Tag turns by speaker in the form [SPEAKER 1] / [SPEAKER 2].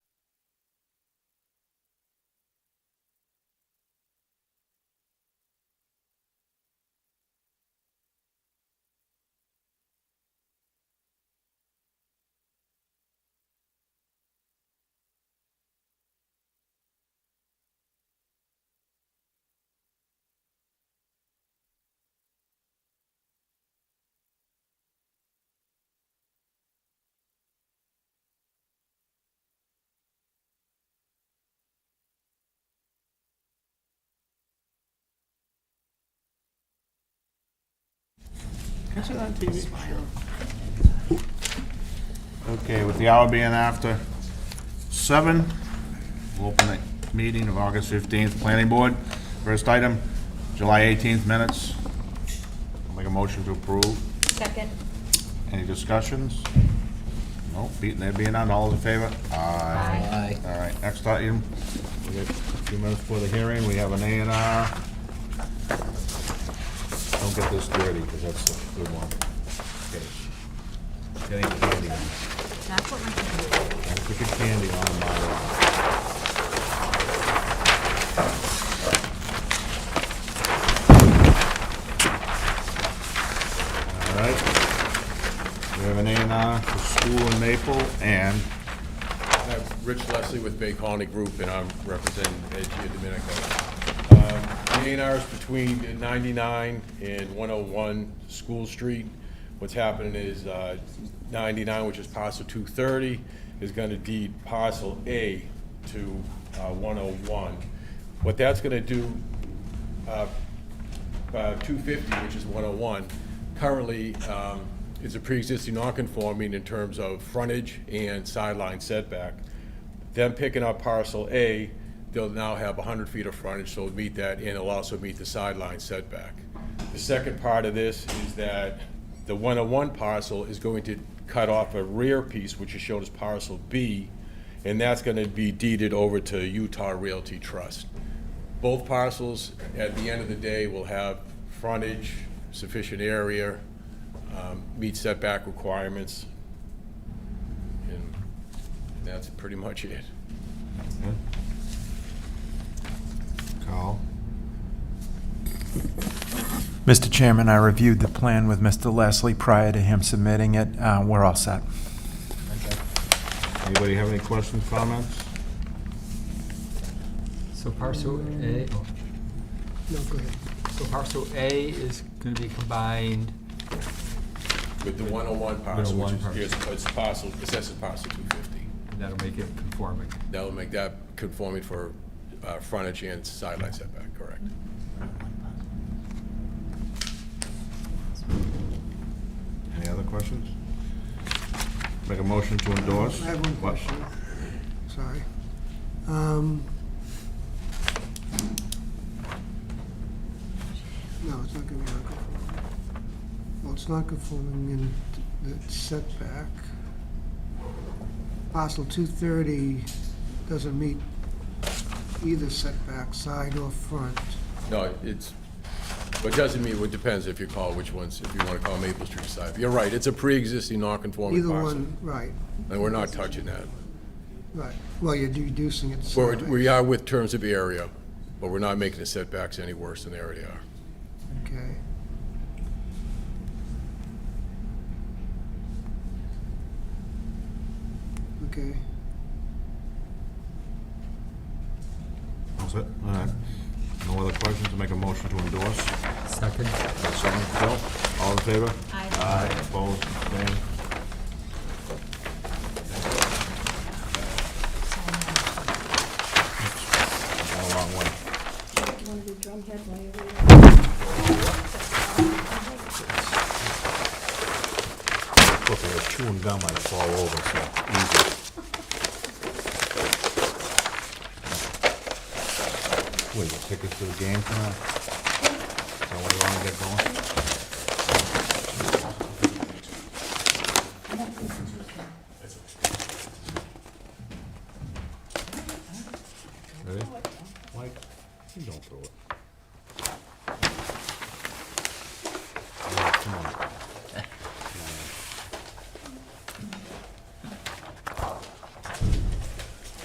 [SPEAKER 1] Is it on TV? Okay, with the hour being after seven, we'll open the meeting of August fifteenth, planning board. First item, July eighteenth minutes. I'll Make a motion to approve.
[SPEAKER 2] Second.
[SPEAKER 1] Any discussions? Nope, beating there being none, all in favor? Aye.
[SPEAKER 3] Aye.
[SPEAKER 1] All right, next item, we got a few minutes for the hearing, we have an A and R. Don't get this dirty, because that's a good one. Okay. Getting candy, on-
[SPEAKER 2] That's what my computer is.
[SPEAKER 1] I took a candy on my, all right. We have an A and R for school in Maple and
[SPEAKER 4] I'm Rich Leslie with Bay Colony Group, and I'm representing Edgea Domenico. Um, The A and R is between 99 and 101 School Street. What's happening is uh, 99, which is parcel 230, is going to deed parcel A to uh, 101. What that's going to do, uh, uh, 250, which is 101, currently um, is a pre-existing non-conforming in terms of frontage and sideline setback. Them picking up parcel A, they'll now have 100 feet of frontage, so it'll meet that, and it'll also meet the sideline setback. The second part of this is that the 101 parcel is going to cut off a rear piece, which is shown as parcel B, and that's going to be deeded over to Utah Realty Trust. Both parcels, at the end of the day, will have frontage, sufficient area, um, meet setback requirements, and that's pretty much it.
[SPEAKER 1] Carl.
[SPEAKER 5] Mr. Chairman, I reviewed the plan with Mr. Leslie prior to him submitting it. Uh, We're all set.
[SPEAKER 1] Anybody have any questions, comments?
[SPEAKER 3] So parcel A, oh. So parcel A is gonna be combined,
[SPEAKER 4] With the 101 parcel, which
[SPEAKER 3] 101
[SPEAKER 4] is, here's, it's parcel, assessors parcel 250.
[SPEAKER 3] and that'll make it conforming.
[SPEAKER 4] That'll make that conforming for uh, frontage and sideline setback, correct?
[SPEAKER 1] Any other questions? Make a motion to endorse?
[SPEAKER 6] I have one
[SPEAKER 1] What?
[SPEAKER 6] question, sorry. Um, No, it's not gonna be non-conforming. Well, it's not conforming in the setback. Parcel two thirty doesn't meet either setback, side or front.
[SPEAKER 4] No, it's, but doesn't mean, it depends if you call which ones, if you want to call Maple Street side. You're right, it's a pre-existing non-conforming
[SPEAKER 6] Either
[SPEAKER 4] parcel,
[SPEAKER 6] one, right,
[SPEAKER 4] and we're not touching that.
[SPEAKER 6] right. Well, you're reducing it.
[SPEAKER 4] Well,
[SPEAKER 6] size.
[SPEAKER 4] we are with terms of area, but we're not making the setbacks any worse than they already are.
[SPEAKER 6] Okay. Okay,
[SPEAKER 1] That's it? All right. No other questions, make a motion to endorse?
[SPEAKER 3] Second,
[SPEAKER 1] Got Someone, Phil? All in favor?
[SPEAKER 2] Aye.
[SPEAKER 1] Aye, opposed, abstained? Got a long way. Look, I was chewing gum, I'd fall over, so easy. What, you got tickets to the game tonight? Is that why you wanna get going? Ready? Mike, you don't throw it. Yeah, Come on.